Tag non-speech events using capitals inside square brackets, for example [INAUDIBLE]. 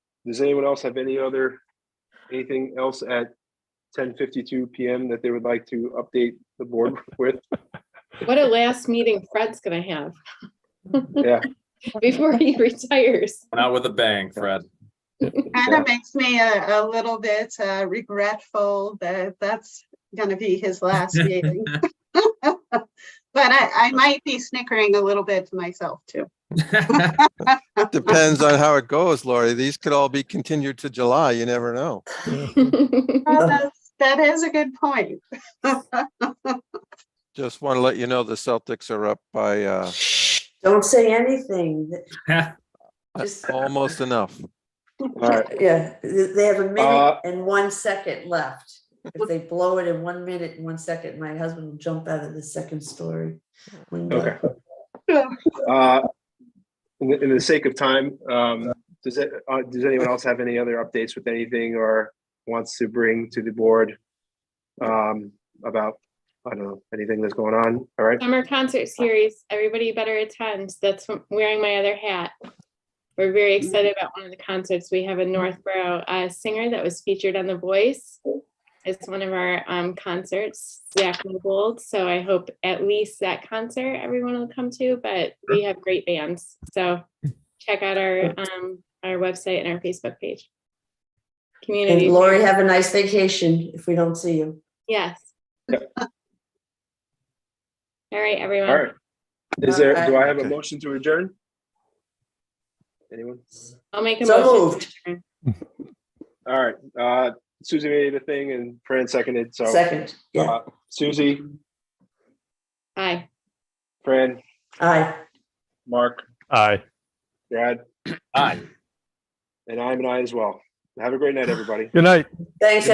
Does anyone else have any other, anything else at ten fifty-two PM that they would like to update the board [LAUGHS] with? What a last meeting Fred's gonna have. Yeah. [LAUGHS] Before he retires. [LAUGHS] Not with a bang, Fred. Kind of makes me a, a little bit uh, regretful that that's gonna be his last meeting. [LAUGHS] But I, I might be snickering a little bit to myself too. Depends on how it goes, Lori. These could all be continued to July. You never know. Well, that's- [LAUGHS] That is a good point. [LAUGHS] Just want to let you know the Celtics are up by uh Don't say anything. Just- almost enough. All right, Yeah, th- they have a Uh, minute and one second left. If they blow it in one minute and one second, my husband will jump out of the second story. window. uh, in the, in the sake of time, um, does it, uh, does anyone else have any other updates with anything or wants to bring to the board? Um, about, I don't know, anything that's going on, all right? Summer concert series, everybody better attend. That's what- wearing my other hat. We're Mm. very excited about one of the concerts. We have a Northborough uh, singer that was featured on The Voice. It's one of our um, concerts, Zach Newbold. So I hope at least that concert everyone will come to, but we have great bands. So check out our, um, our website and our Facebook page. Community. And Lori, have a nice vacation if we don't see you. Yes. Yep. All right, everyone. All right. Is there, do I have a Okay. motion to adjourn? Anyone? I'll make a So motion. moved. All right, uh, Susie made the thing and Fran seconded, so, Second, yeah, uh, Susie, Hi. Fran, aye. Mark, Aye. Brad, Hi. and I'm an I as well. Have a great night, everybody. Good night. Thanks,